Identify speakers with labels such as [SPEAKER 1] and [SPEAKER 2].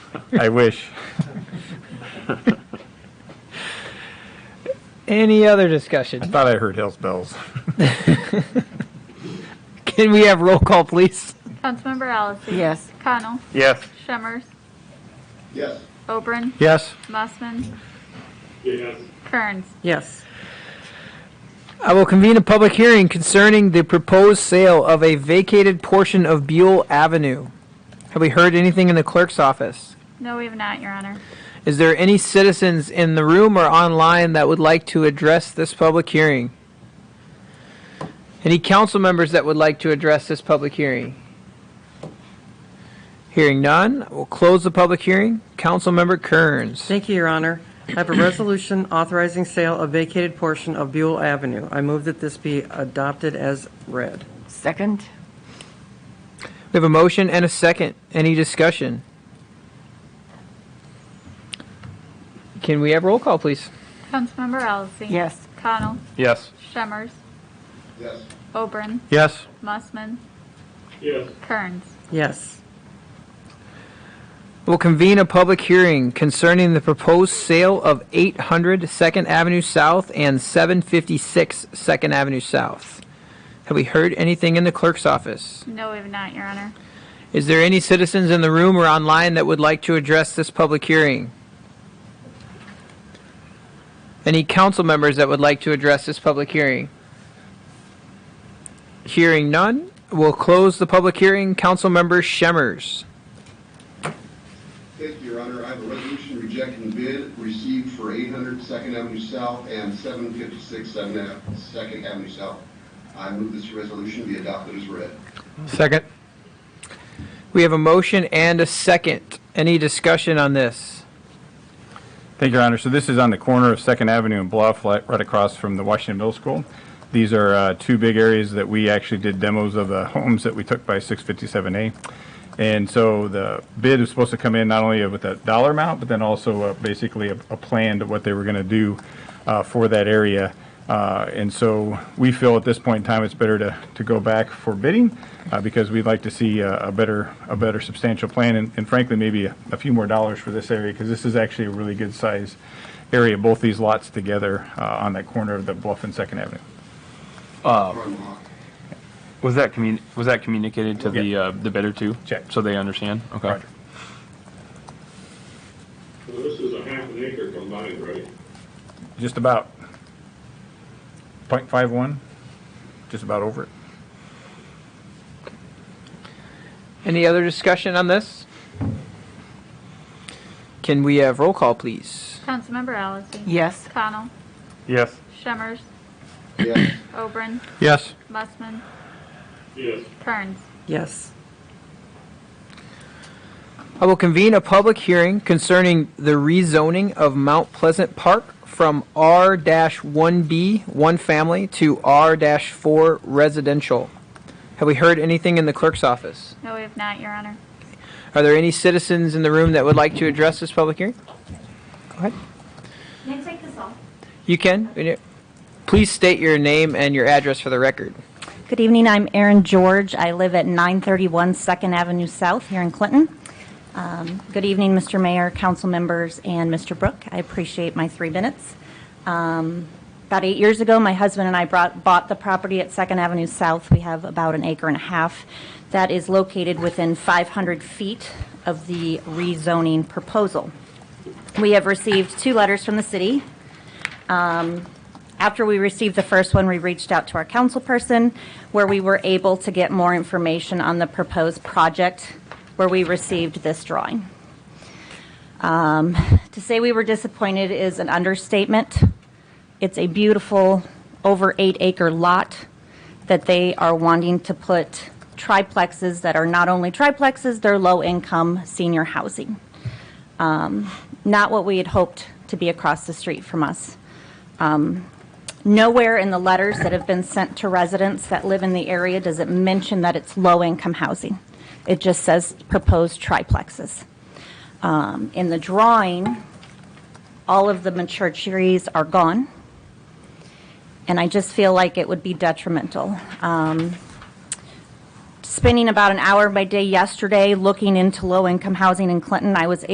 [SPEAKER 1] I wish.
[SPEAKER 2] Any other
[SPEAKER 1] I
[SPEAKER 2] discussion?
[SPEAKER 1] thought I heard Hell's Bells.
[SPEAKER 2] Can we have roll call, please?
[SPEAKER 3] Councilmember Allison.
[SPEAKER 4] Yes.
[SPEAKER 3] Connell.
[SPEAKER 1] Yes.
[SPEAKER 3] Shemmers.
[SPEAKER 5] Yes.
[SPEAKER 3] Oberon.
[SPEAKER 1] Yes.
[SPEAKER 3] Mussman.
[SPEAKER 5] Yes.
[SPEAKER 3] Kearns.
[SPEAKER 4] Yes.
[SPEAKER 2] I will convene a public hearing concerning the proposed sale of a vacated portion of Buell Avenue. Have we heard anything in the clerk's office?
[SPEAKER 3] No, we have not, Your Honor.
[SPEAKER 2] Is there any citizens in the room or online that would like to address this public hearing? Any council members that would like to address this public hearing? Hearing none, we'll close the public hearing. Councilmember Kearns.
[SPEAKER 4] Thank you, Your Honor. I have a resolution authorizing sale of vacated portion of Buell Avenue. I move that this be adopted as read.
[SPEAKER 6] Second?
[SPEAKER 2] We have a motion and a second. Any discussion? Can we have roll call, please?
[SPEAKER 3] Councilmember Allison.
[SPEAKER 6] Yes.
[SPEAKER 3] Connell.
[SPEAKER 1] Yes.
[SPEAKER 3] Shemmers.
[SPEAKER 5] Yes.
[SPEAKER 3] Oberon.
[SPEAKER 1] Yes.
[SPEAKER 3] Mussman.
[SPEAKER 5] Yes.
[SPEAKER 3] Kearns.
[SPEAKER 4] Yes.
[SPEAKER 2] Will convene a public hearing concerning the proposed sale of 800 Second Avenue South and 756 Second Avenue South. Have we heard anything in the clerk's office?
[SPEAKER 3] No, we have not, Your Honor.
[SPEAKER 2] Is there any citizens in the room or online that would like to address this public hearing? Any council members that would like to address this public hearing? Hearing none, we'll close the public hearing. Councilmember Shemmers.
[SPEAKER 5] Thank you, Your Honor. I have a resolution rejecting bid received for 800 Second Avenue South and 756 Second Ave- Second Avenue South. I move this resolution be adopted as read.
[SPEAKER 1] Second.
[SPEAKER 2] We have a motion and a second. Any discussion on this?
[SPEAKER 1] Thank you, Your Honor. So this is on the corner of Second Avenue and Bluff, li- right across from the Washington Middle School. These are uh, two big areas that we actually did demos of the homes that we took by 657A. And so the bid was supposed to come in not only with a dollar amount, but then also uh, basically a a plan to what they were going to do uh, for that area. Uh, And so we feel at this point in time, it's better to, to go back for bidding uh, because we'd like to see a a better, a better substantial plan and and frankly, maybe a a few more dollars for this area because this is actually a really good size area, both these lots together uh, on that corner of the Bluff and Second Avenue.
[SPEAKER 5] Run along.
[SPEAKER 7] Was that commun, was that communicated to the,
[SPEAKER 1] Yeah.
[SPEAKER 7] uh, the bidder too?
[SPEAKER 1] Check.
[SPEAKER 7] So they understand? Okay.
[SPEAKER 1] Roger.
[SPEAKER 8] So this is a half an acre combined, right?
[SPEAKER 1] Just about .51, just about over it.
[SPEAKER 2] Any other discussion on this? Can we have roll call, please?
[SPEAKER 3] Councilmember Allison.
[SPEAKER 6] Yes.
[SPEAKER 3] Connell.
[SPEAKER 1] Yes.
[SPEAKER 3] Shemmers.
[SPEAKER 5] Yes.
[SPEAKER 3] Oberon.
[SPEAKER 1] Yes.
[SPEAKER 3] Mussman.
[SPEAKER 8] Yes.
[SPEAKER 3] Kearns.
[SPEAKER 4] Yes.
[SPEAKER 2] I will convene a public hearing concerning the rezoning of Mount Pleasant Park from R-1B, one family, to R-4 residential. Have we heard anything in the clerk's office?
[SPEAKER 3] No, we have not, Your Honor.
[SPEAKER 2] Are there any citizens in the room that would like to address this public hearing? Go ahead.
[SPEAKER 3] Can I take this off?
[SPEAKER 2] You can. Please state your name and your address for the record.
[SPEAKER 9] Good evening, I'm Erin George. I live at 931 Second Avenue South here in Clinton. Um, Good evening, Mr. Mayor, council members, and Mr. Brook. I appreciate my three minutes. Um, About eight years ago, my husband and I brought, bought the property at Second Avenue South. We have about an acre and a half that is located within 500 feet of the rezoning proposal. We have received two letters from the city after we received the first one, we reached out to our councilperson, where we were able to get more information on the proposed project, where we received this drawing. Um, To say we were disappointed is an understatement. It's a beautiful, over eight-acre lot that they are wanting to put triplexes that are not only triplexes, they're low-income senior housing. Um, Not what we had hoped to be across the street from us. Nowhere in the letters that have been sent to residents that live in the area does it mention that it's low-income housing. It just says proposed triplexes. Um, In the drawing, all of the mature trees are gone, and I just feel like it would be detrimental. Um, Spending about an hour of my day yesterday looking into low-income housing in Clinton, I was